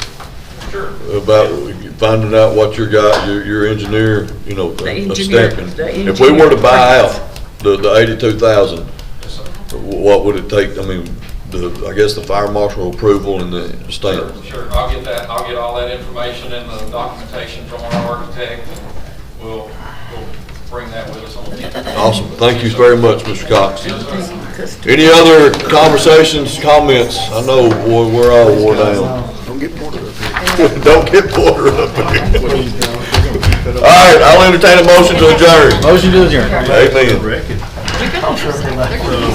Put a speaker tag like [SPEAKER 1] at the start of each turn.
[SPEAKER 1] Sure.
[SPEAKER 2] about finding out what your guy, your, your engineer, you know,
[SPEAKER 3] The
[SPEAKER 2] uh,
[SPEAKER 3] engineer-
[SPEAKER 2] stamping.
[SPEAKER 3] the
[SPEAKER 2] If we were to
[SPEAKER 3] engineer
[SPEAKER 2] buy
[SPEAKER 3] plans.
[SPEAKER 2] out the, the eighty-two thousand,
[SPEAKER 1] Yes, sir.
[SPEAKER 2] what would it take, I mean, the, I guess the fire marshal approval and the stamp?
[SPEAKER 1] Sure, Sure, I'll get that, I'll get all that information and the documentation from our architect, and we'll, we'll bring that with us on the future.
[SPEAKER 2] Awesome, thank you very much, Mr. Cox.
[SPEAKER 1] Yes, sir.
[SPEAKER 2] Any other conversations, comments? I know, boy, we're all worn down.
[SPEAKER 4] Don't get Porter up here.
[SPEAKER 2] Don't get Porter up here. All right, I'll entertain a motion to adjourn.
[SPEAKER 4] Motion to adjourn.
[SPEAKER 2] Amen.
[SPEAKER 3] You're gonna-